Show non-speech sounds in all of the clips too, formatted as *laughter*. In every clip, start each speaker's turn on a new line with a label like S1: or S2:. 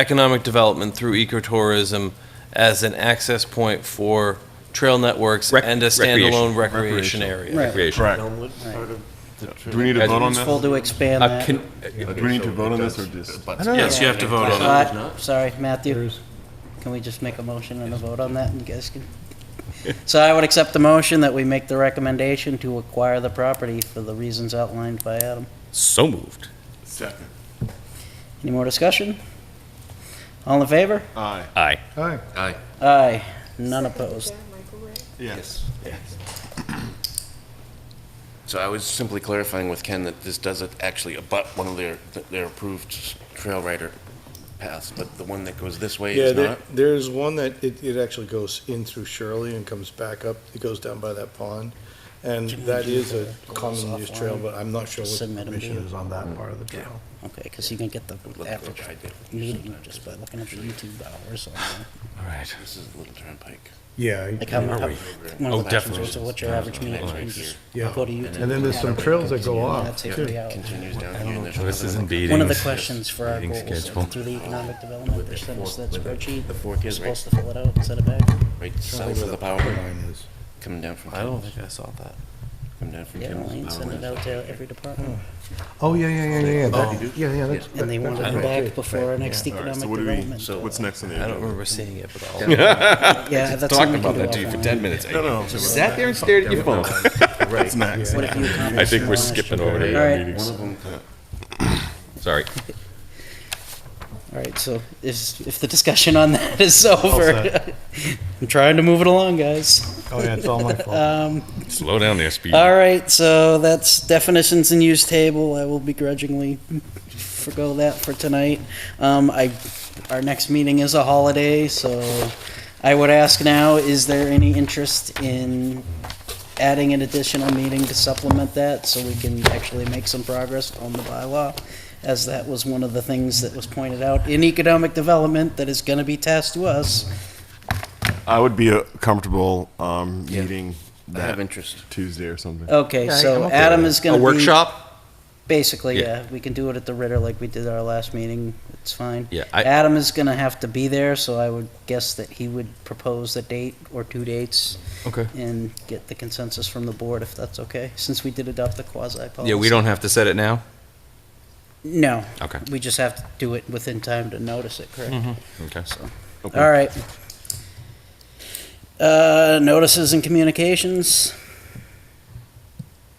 S1: economic development through ecotourism as an access point for trail networks
S2: Rec-
S1: and a
S2: recreation.
S1: standalone recreation area.
S3: Right.
S2: Recreation.
S4: Correct. Do we need to
S2: Guys,
S4: vote on
S3: It's full
S4: this?
S3: to expand
S2: Uh,
S3: that.
S2: can,
S4: Do we need to vote on this or just?
S1: Yes, you have to vote on it.
S3: Uh, Sorry, Matthew, can we just make a motion and a vote on that, and you guys can? So I would accept the motion that we make the recommendation to acquire the property for the reasons outlined by Adam.
S2: so moved.
S4: Second.
S3: Any more discussion? All in favor?
S4: Aye.
S2: Aye.
S3: Aye, none opposed.
S4: Yes.
S5: So I was simply clarifying with Ken that this doesn't actually abut one of their, their approved trail rider paths, but the one that goes this way
S6: Yeah,
S5: is
S6: there,
S5: not?
S6: there's one that it, it actually goes in through Shirley and comes back up, it goes down by that pond. And
S3: Can we
S6: that
S3: do
S6: is a
S3: the goals
S6: common use trail,
S3: offline?
S6: but I'm not sure what the
S3: Submit 'em to
S6: mission
S3: you.
S6: is on that part of the trail.
S3: Okay, because you can get the
S5: Look
S3: average
S5: what I did.
S3: user just by looking at the YouTube hours. on there.
S2: All right.
S5: This is Little Turnpike.
S6: Yeah.
S3: Like how
S5: Where are
S3: many,
S5: we?
S3: one
S2: Oh,
S3: of the questions
S2: definitely.
S3: was, so what's your average meeting?
S5: Right
S3: You
S5: here.
S3: just
S6: Yeah.
S3: Go to YouTube.
S6: And then there's some trails that go off,
S3: That's it,
S6: too.
S3: three hours.
S5: Continues down here. and there's
S2: This
S5: another
S2: is
S5: one.
S2: indeed.
S3: One of the
S2: Meetings.
S3: questions for our
S2: Meeting
S3: goals, is
S2: schedule.
S3: through the economic development, they sent us that
S5: With the-
S3: spreadsheet,
S5: the fork
S3: we're
S5: is right-
S3: supposed to fill it out, send it back.
S5: Right south of the power line, coming down from,
S1: I don't think I saw that.
S5: coming down from.
S3: Yeah,
S5: Campbell's
S3: Elaine
S5: power
S3: sent it
S5: line.
S3: out to every department,
S6: Oh, yeah, yeah, yeah, yeah,
S5: that- Oh.
S6: yeah, yeah, that's.
S3: and they want it back before our next
S4: All right,
S3: economic
S4: so what do we,
S3: development.
S4: so what's next on the
S1: I don't
S4: agenda?
S1: remember seeing it, but I'll.
S3: Yeah, that's
S2: Talked
S3: something we
S2: about
S3: can
S2: that to
S3: do
S2: you for
S3: offline.
S2: ten minutes.
S4: No, no, no.
S2: Sat there and stared at your phone.
S4: What's next?
S3: What if you accomplish
S2: I think
S3: your
S2: we're
S3: last-
S2: skipping over
S3: All
S2: to
S3: right.
S2: meetings.
S5: One of them,
S2: Sorry.
S3: All right, so is, if the discussion on that *laughs* is over, I'm trying to move it along, guys.
S6: Oh, yeah, it's all my fault.
S3: Um,
S2: Slow down there, speed.
S3: All right, so that's definitions and use table. I will begrudgingly forego that for tonight. Um, I, our next meeting is a holiday, so I would ask now, is there any interest in adding an additional meeting to supplement that so we can actually make some progress on the bylaw? As that was one of the things that was pointed out in economic development that is gonna be tasked to us.
S4: I would be uh, comfortable um, meeting
S5: I have
S4: that
S5: interest.
S4: Tuesday or something.
S3: Okay,
S6: I'm
S3: so
S6: okay
S3: Adam
S6: with
S3: is
S2: A
S3: gonna be.
S2: workshop?
S3: Basically,
S2: Yeah.
S3: yeah, we can do it at the Ritter like we did our last meeting, it's fine.
S2: Yeah, I-
S3: Adam is gonna have to be there, so I would guess that he would propose a date or two dates
S2: Okay.
S3: and get the consensus from the board if that's okay, since we did adopt the quasi policy.
S2: Yeah, we don't have to set it now?
S3: No,
S2: Okay,
S3: we just have to do it within time to notice it, correct?
S2: Mm-hmm. okay. Okay.
S3: All right. Uh, notices and communications.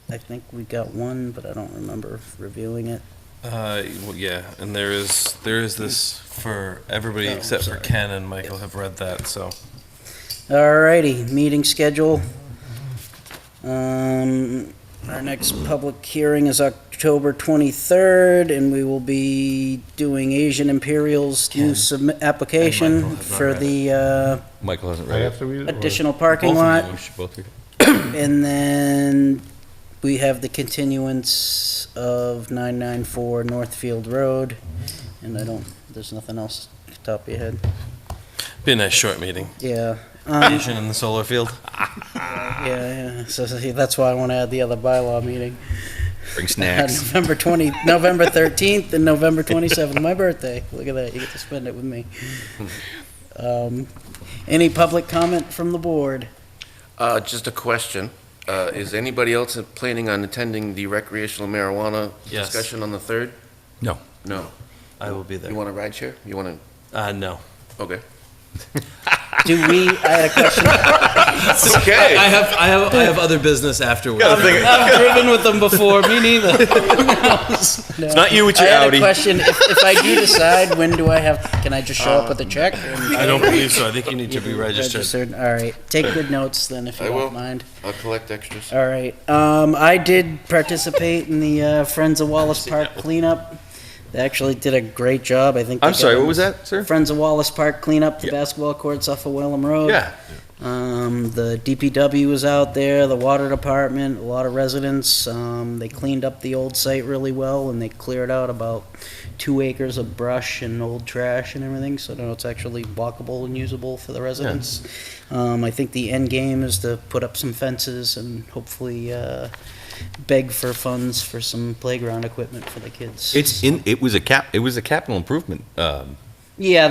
S3: I think we got one, but I don't remember reviewing it.
S1: Uh, well, yeah, and there is, there is this for everybody
S3: Oh, I'm
S1: except for
S3: sorry.
S1: Ken and Michael have read that, so.
S3: Alrighty, meeting schedule. Um, our next public hearing is October twenty-third, and we will be doing Asian Imperial's new submi- application
S1: Michael have not
S3: for
S1: read
S3: the, uh,
S2: Michael hasn't
S6: I
S2: read
S6: have
S2: it.
S6: to read it. or-
S3: additional parking
S2: Both of
S3: lot,
S2: them, we should both read it.
S3: and then we have the continuance of nine-nine-four Northfield Road, and I don't, there's nothing else off the top of your head,
S1: Be a nice short meeting.
S3: yeah.
S2: *laughs*
S3: Um,
S1: Vision in the solar field.
S3: Yeah, yeah. So, so, see, that's why I want to add the other bylaw meeting.
S2: Bring *laughs*
S3: on
S2: snacks.
S3: November 20, November 13th and November 27th, my birthday. Look at that, you get to spend it with me. Um, Any public comment from the board?
S5: Uh, just a question. Uh, is anybody else planning on attending the recreational marijuana
S1: Yes.
S5: discussion on the third?
S2: No.
S5: No.
S1: I will be
S5: You
S1: there.
S5: want a ride share? You want
S1: Uh, no.
S5: to, okay.
S3: Do we, I had a question.
S2: *laughs*
S1: I have, I have, I have other business afterwards.
S2: *laughs*
S3: I've driven with them before, me neither. It's
S2: not you with your
S3: I had
S2: Audi.
S3: a question, if, if I do decide, when do I have, can I just show up with a check?
S1: Uh, I don't believe so. I think you need to be registered.
S3: Registered, all right. Take good notes then, if you
S5: I will.
S3: don't mind.
S5: I'll collect extras.
S3: All right. Um, I did participate in the uh, Friends of Wallace
S2: *laughs*
S3: Park cleanup. They actually did a great job. I think.
S2: I'm
S3: they
S2: sorry,
S3: got
S2: what was that, sir?
S3: Friends of Wallace Park cleanup the
S2: Yeah.
S3: basketball courts off of Wellham Road.
S2: Yeah.
S3: Um, the DPW was out there, the water department, a lot of residents. Um, they cleaned up the old site really well and they cleared out about two acres of brush and old trash and everything. So now it's actually walkable and usable for the residents. Um, I think the end game is to put up some fences and hopefully uh, beg for funds for some playground equipment for the kids.
S2: It's in, it was a cap, it was a capital improvement, um,
S3: Yeah,